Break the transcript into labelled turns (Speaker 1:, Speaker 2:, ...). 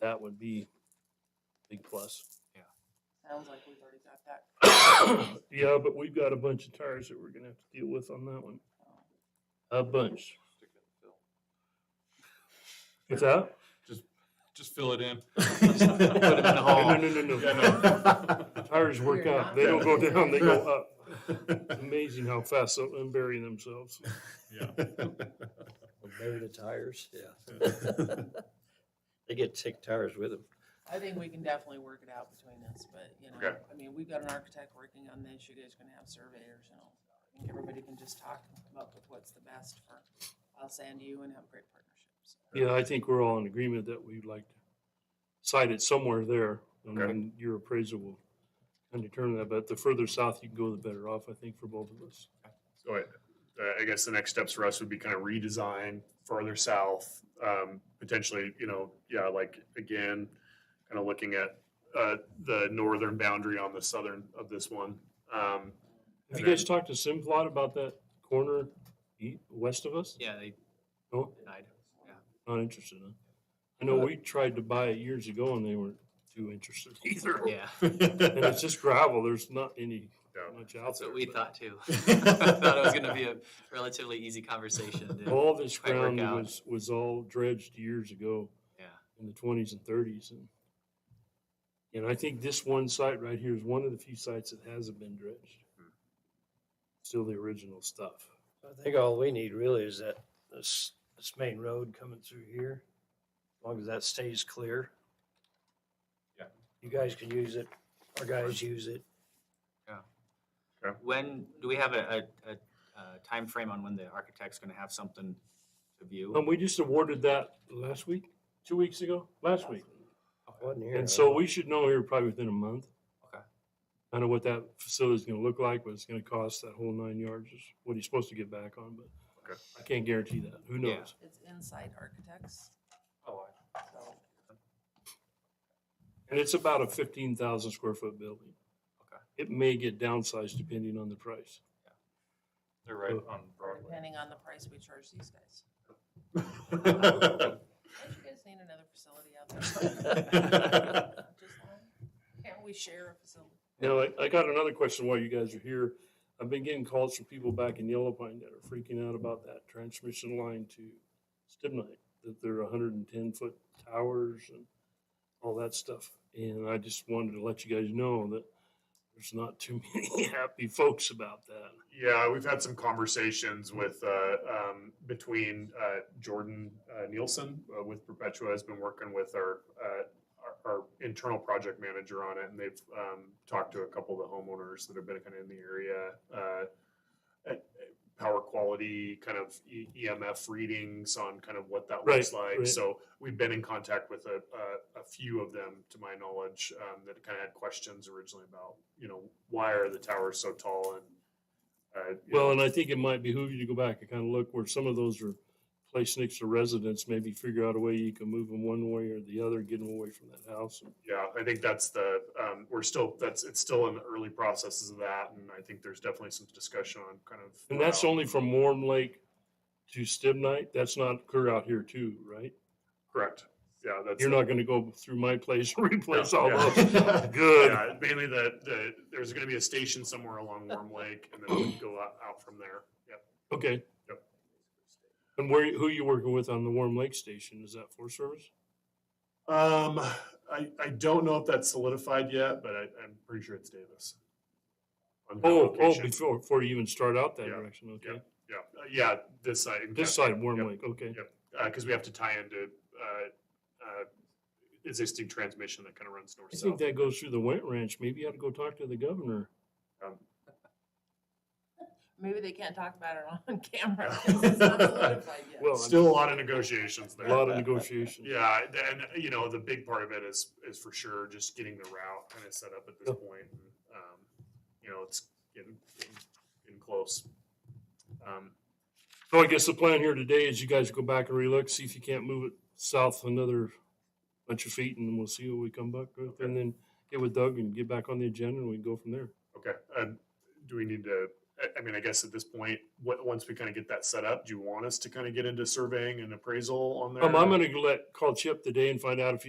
Speaker 1: that would be big plus.
Speaker 2: Sounds like we've already got that.
Speaker 1: Yeah, but we've got a bunch of tires that we're gonna have to deal with on that one. A bunch.
Speaker 3: Stick it in the
Speaker 1: What's
Speaker 3: fill.
Speaker 1: that?
Speaker 3: Just fill it in.
Speaker 1: Put
Speaker 3: Just put it in the hole.
Speaker 1: No, no, no, no, no. Tires work
Speaker 2: We're
Speaker 1: up.
Speaker 2: not
Speaker 1: They don't go
Speaker 2: doing
Speaker 1: down, they
Speaker 2: that.
Speaker 1: go up. Amazing how fast they'll unbury themselves.
Speaker 4: Bury the tires, yeah. They get tick tires with them.
Speaker 2: I think we can definitely work it out between us, but, you know,
Speaker 3: Okay.
Speaker 2: I mean, we've got an architect working on this, you guys are gonna have surveyors, you know. I think everybody can just talk and come up with what's the best for us and you and have great partnerships.
Speaker 1: Yeah, I think we're all in agreement that we'd like to site it somewhere there. And
Speaker 3: Okay.
Speaker 1: then your appraisal will kind of determine that, but the further south you can go, the better off, I think, for both of us.
Speaker 5: So I, I guess the next steps for us would be kind of redesign further south, um, potentially, you know, yeah, like again, kind of looking at, uh, the northern boundary on the southern of this one. Um,
Speaker 1: Have you
Speaker 5: And
Speaker 1: guys talked to Simplot about that corner e- west of us?
Speaker 3: Yeah, they
Speaker 5: Oh.
Speaker 1: No,
Speaker 3: denied.
Speaker 1: not interested, huh? I know we tried to buy it years ago and they weren't too interested either.
Speaker 3: Yeah,
Speaker 1: And it's just gravel, there's not any,
Speaker 5: Yeah.
Speaker 1: much out
Speaker 3: that's
Speaker 1: there.
Speaker 3: what we
Speaker 1: but
Speaker 3: thought too. Thought it was gonna be a relatively easy conversation. didn't-
Speaker 1: All this
Speaker 3: quite work
Speaker 1: ground
Speaker 3: out.
Speaker 1: was, was all dredged years ago.
Speaker 3: Yeah.
Speaker 1: in the twenties and thirties and and I think this one site right here is one of the few sites that hasn't been dredged.
Speaker 3: Hmm.
Speaker 1: Still the original stuff.
Speaker 4: So I think all we need really is that, this, this main road coming through here, as long as that stays clear.
Speaker 3: Yeah.
Speaker 4: You guys can use it, our guys use it.
Speaker 6: When, do we have a, a, a, uh timeframe on when the architect's gonna have something to
Speaker 1: And
Speaker 6: view?
Speaker 1: Um, we just awarded that last week, two weeks ago, last week.
Speaker 4: Wasn't here,
Speaker 1: And
Speaker 4: I
Speaker 1: so
Speaker 4: don't-
Speaker 1: we should know here probably within a month.
Speaker 6: Okay.
Speaker 1: I know what that facility's gonna look like, what it's gonna cost, that whole nine yards, is what he's supposed to get back on, but
Speaker 5: Okay.
Speaker 1: I can't guarantee that. Who
Speaker 6: Yeah.
Speaker 1: knows?
Speaker 2: It's inside architects,
Speaker 6: Oh,
Speaker 2: so.
Speaker 1: And it's about a fifteen thousand square foot building.
Speaker 6: Okay.
Speaker 1: It may get downsized depending on the price.
Speaker 3: They're right on
Speaker 2: or
Speaker 3: Broadway.
Speaker 2: Depending on the price we charge these guys. Don't you guys need another facility out there? Just one? Can't we share a facility?
Speaker 1: Now, I, I got another question while you guys are here. I've been getting calls from people back in Yellow Pine that are freaking out about that transmission line to Stibnite, that they're hundred and ten foot towers and all that stuff. And I just wanted to let you guys know that there's not too many happy folks about that.
Speaker 5: Yeah, we've had some conversations with, uh, um, between, uh, Jordan uh, Nielsen uh, with Perpetua has been working with our, uh, our, our internal project manager on it and they've, um, talked to a couple of the homeowners that have been kind of in the area. Uh, uh, power quality, kind of E- EMF readings on kind of what that looks
Speaker 1: Right,
Speaker 5: like.
Speaker 1: right.
Speaker 5: So we've been in contact with a, a, a few of them, to my knowledge, um, that kind of had questions originally about, you know, why are the towers so tall and, uh, you know,
Speaker 1: Well, and I think it might behoove you to go back and kind of look where some of those are placed next to residents, maybe figure out a way you can move them one way or the other, get them away from that house.
Speaker 5: Yeah, I think that's the, um, we're still, that's, it's still in the early processes of that, and I think there's definitely some discussion on kind of.
Speaker 1: And that's
Speaker 5: how-
Speaker 1: only from Warm Lake to Stibnite. That's not clear out here too, right?
Speaker 5: Correct, yeah, that's.
Speaker 1: You're not gonna go through my place and replace
Speaker 5: No,
Speaker 1: all
Speaker 5: yeah.
Speaker 1: those. Good.
Speaker 5: Yeah, mainly the, the, there's gonna be a station somewhere along Worm Lake, and then we go out, out from there, yep.
Speaker 1: Okay.
Speaker 5: Yep.
Speaker 1: And where, who you working with on the Warm Lake Station? Is that Forest Service?
Speaker 5: Um, I, I don't know if that's solidified yet, but I, I'm pretty sure it's Davis. On that
Speaker 1: Oh, oh,
Speaker 5: location.
Speaker 1: before, before you even start out that
Speaker 5: Yeah,
Speaker 1: direction, okay.
Speaker 5: Yeah, uh, yeah, this side. in
Speaker 1: This
Speaker 5: Cascade,
Speaker 1: side, Warm
Speaker 5: yep.
Speaker 1: Lake, okay.
Speaker 5: because uh, we have to tie into uh, uh, existing transmission that kind of runs north
Speaker 1: I
Speaker 5: south.
Speaker 1: think that goes through the Went Ranch. Maybe you ought to go talk to the governor.
Speaker 5: Um,
Speaker 2: Maybe they can't talk about it on camera. 'cause It's not solidified yet.
Speaker 1: Well,
Speaker 5: Still a lot of negotiations
Speaker 1: A
Speaker 5: there.
Speaker 1: lot of negotiations.
Speaker 5: Yeah, th- and you know the big part of it is is for sure just getting the route kind of set up at this
Speaker 1: Yeah.
Speaker 5: point. And, um, you know, it's getting getting, getting close. Um,
Speaker 1: So I guess the plan here today is you guys go back and relook, see if you can't move it south another bunch of feet and we'll see what we come back with. And then get with Doug and get back on the agenda and we can go from there.
Speaker 5: okay, um, do we need to? I- I mean, I guess at this point, what, once we kind of get that set up, do you want us to kind of get into surveying and appraisal on there?
Speaker 1: Um, I'm gonna let, call Chip today and find out if